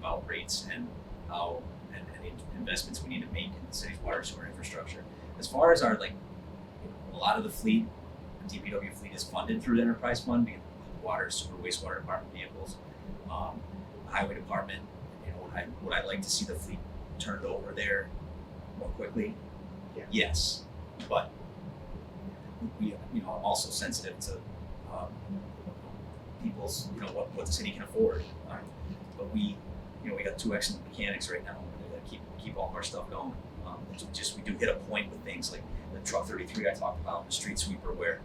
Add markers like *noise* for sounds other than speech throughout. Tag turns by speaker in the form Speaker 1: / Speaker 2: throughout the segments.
Speaker 1: about rates and how and, and the investments we need to make in the city's water sewer infrastructure. As far as our like, a lot of the fleet, the DPW fleet is funded through the enterprise fund, being water, sewer, wastewater department vehicles, um, highway department. You know, I, would I like to see the fleet turned over there more quickly?
Speaker 2: Yeah.
Speaker 1: Yes, but we, you know, I'm also sensitive to um, people's, you know, what, what the city can afford. Um, but we, you know, we got two excellent mechanics right now. We're gonna keep keep all of our stuff going. Um, it's just we do hit a point with things like the truck 33 I talked about, the street sweeper, where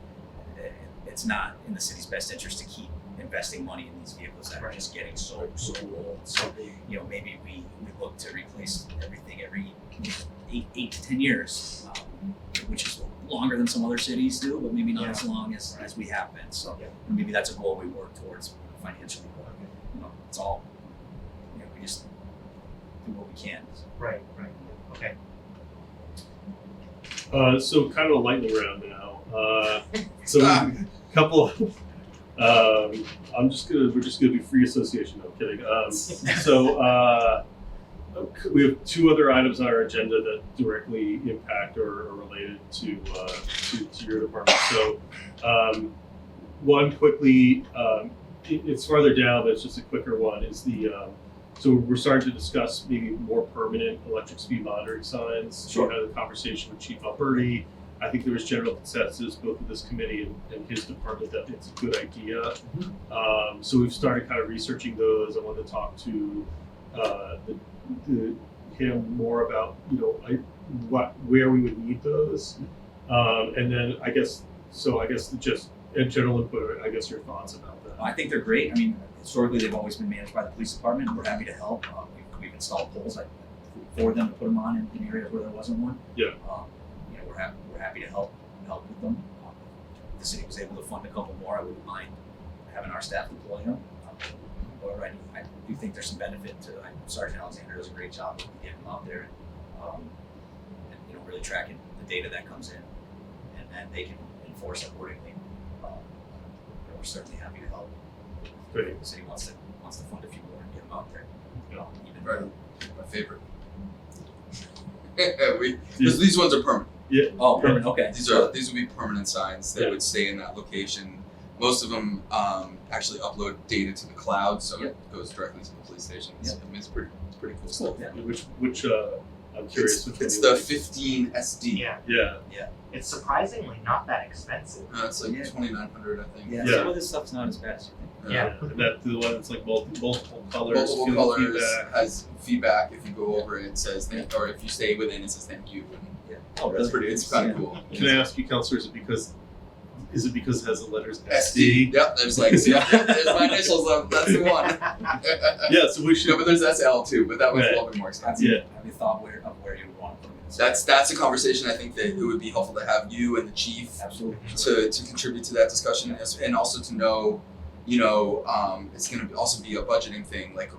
Speaker 1: it- it's not in the city's best interest to keep investing money in these vehicles that are just getting so so old. So you know, maybe we we look to replace everything every eight eight to ten years, um, which is longer than some other cities do, but maybe not as long as, as we have been. So
Speaker 2: Yeah.
Speaker 1: maybe that's a goal we work towards financially. But, you know, it's all you know, we just do what we can.
Speaker 2: Right, right, okay.
Speaker 3: Uh, so kind of a lightning round now. Uh, so a couple. Um, I'm just gonna. We're just gonna be free association. No, I'm kidding. Um, so uh, we have two other items on our agenda that directly impact or are related to uh, to, to your department. So um, one quickly. Um, it, it's farther down, but it's just a quicker one. Is the um, so we're starting to discuss maybe more permanent electric speed monitoring signs.
Speaker 1: Sure.
Speaker 3: We had a conversation with Chief Alberti. I think there was general consensus, both of this committee and, and his department, that it's a good idea. Um, so we've started kind of researching those. I wanted to talk to uh, the, the, him more about you know I, what where we would need those, um, and then I guess so. I guess just in general input. I guess your thoughts about that.
Speaker 1: I think they're great. I mean, historically they've always been managed by the police department. We're happy to help. Uh, we've, we've installed poles like, for them to put them on in, in areas where there wasn't one.
Speaker 3: Yeah.
Speaker 1: Um, you know, we're happy. We're happy to help help with them. Um, if the city was able to fund a couple more, I wouldn't mind having our staff deploy them. Um, However, I do, I do think there's some benefit to. I, Sergeant Alexander does a great job of getting them out there and, um, and you know really tracking the data that comes in, and then they can enforce accordingly. Um, you know, we're certainly happy to help.
Speaker 3: Great.
Speaker 1: The city wants to wants to fund a few more and get them out there. You know, even
Speaker 4: Right. My favorite. *laughs* we, 'cause these ones are permanent.
Speaker 1: Oh, permanent. Okay.
Speaker 4: These are these would be permanent signs that
Speaker 3: Yeah.
Speaker 4: would stay in that location. Most of them um, actually upload data to the cloud, so it goes directly to the police station. It's, I mean, it's pretty, it's pretty cool stuff.
Speaker 1: Yeah.
Speaker 3: Which which uh, I'm curious.
Speaker 4: It's,
Speaker 3: which
Speaker 4: it's
Speaker 3: one
Speaker 4: the
Speaker 3: you
Speaker 4: 15 SD.
Speaker 2: Yeah,
Speaker 3: like. Yeah.
Speaker 2: it's surprisingly not that expensive.
Speaker 4: Uh, it's like
Speaker 1: Yeah.
Speaker 4: 2900, I think.
Speaker 1: Yeah.
Speaker 3: Yeah.
Speaker 1: Some of this stuff's not as bad as you think.
Speaker 4: Uh,
Speaker 2: Yeah.
Speaker 3: And that the one that's like multi, multiple colors.
Speaker 4: Multiple
Speaker 3: field
Speaker 4: colors
Speaker 3: feedback.
Speaker 4: has feedback. If you go over it, it says thank, or if you stay within, it says thank you. And
Speaker 1: Yeah. Oh,
Speaker 4: that's
Speaker 1: really?
Speaker 4: pretty. It's kind of
Speaker 1: Yeah.
Speaker 4: cool.
Speaker 3: Can I ask you, counselor, is it because is it because it has the letters
Speaker 4: SD. Yep. There's like yeah. There's my initials. um, That's the
Speaker 2: *laughs*
Speaker 4: one. *laughs*
Speaker 3: Yeah. So we
Speaker 4: No,
Speaker 3: should.
Speaker 4: but there's SL too, but that one's a
Speaker 3: Right.
Speaker 4: little bit more
Speaker 1: Have
Speaker 4: expensive.
Speaker 1: you,
Speaker 3: Yeah.
Speaker 1: have you thought where of where you would want to put them? in?
Speaker 4: That's that's a conversation I think that it would be helpful to have you and the chief
Speaker 1: absolutely.
Speaker 4: to, to contribute to that discussion as- and also to know, you know, um, it's going to also be a budgeting thing. Like,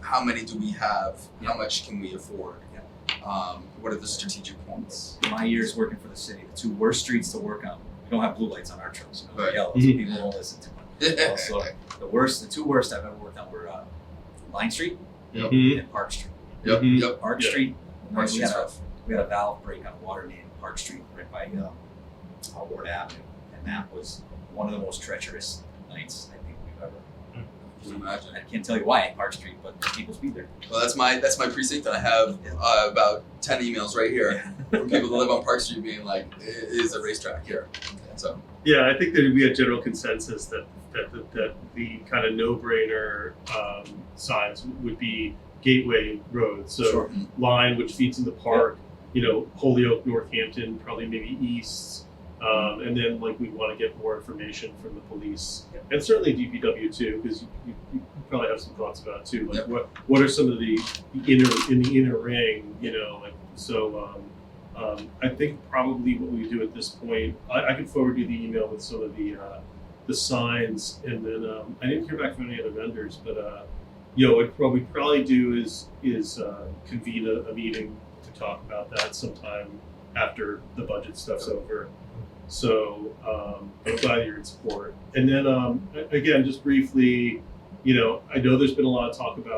Speaker 4: how many do we have?
Speaker 1: Yeah.
Speaker 4: How much can we afford? Um, what are the strategic points? *laughs*
Speaker 1: In my years working for the city, the two worst streets to work on. We don't have blue lights on our trucks. You know,
Speaker 4: Right.
Speaker 1: yellow, so
Speaker 3: Mhm.
Speaker 1: people don't listen to them. Also, the worst, the two worst I've ever worked on were uh, Line Street
Speaker 4: Yep.
Speaker 3: Mhm.
Speaker 1: and Park Street.
Speaker 4: Yep,
Speaker 3: Mhm.
Speaker 4: yep.
Speaker 1: Park
Speaker 3: Yeah.
Speaker 1: Street. we had
Speaker 4: March is
Speaker 1: a-
Speaker 4: rough.
Speaker 1: we had a valve break on water main in Park Street right by um, uh, Ward Avenue, and that was one of the most treacherous nights I think we've ever.
Speaker 4: Can you imagine?
Speaker 1: I can't tell you why at Park Street, but people speed there.
Speaker 4: Well, that's my that's my precinct, and I have uh, about ten emails right here from people that live on Park Street being like, "It is a racetrack here." So
Speaker 3: Yeah, I think there'd be a general consensus that that that, that the kind of no-brainer um, signs would be Gateway Road, so
Speaker 1: Sure.
Speaker 3: line which feeds into Park. You know, Holyoke, Northampton, probably maybe East, um, and then like we want to get more information from the police and certainly DPW too, because you, you, you probably have some thoughts about it too. Like
Speaker 4: Yep.
Speaker 3: what what are some of the, the inner in the inner ring, you know, like so. Um, um, I think probably what we do at this point, I, I could forward you the email with some of the uh, the signs, and then um, I didn't hear back from any other vendors, but uh, you know what, what we probably do is is uh, convene a, a meeting to talk about that sometime after the budget stuff's over. So um, I'm glad you're in support. And then um, a- again, just briefly, you know, I know there's been a lot of talk about.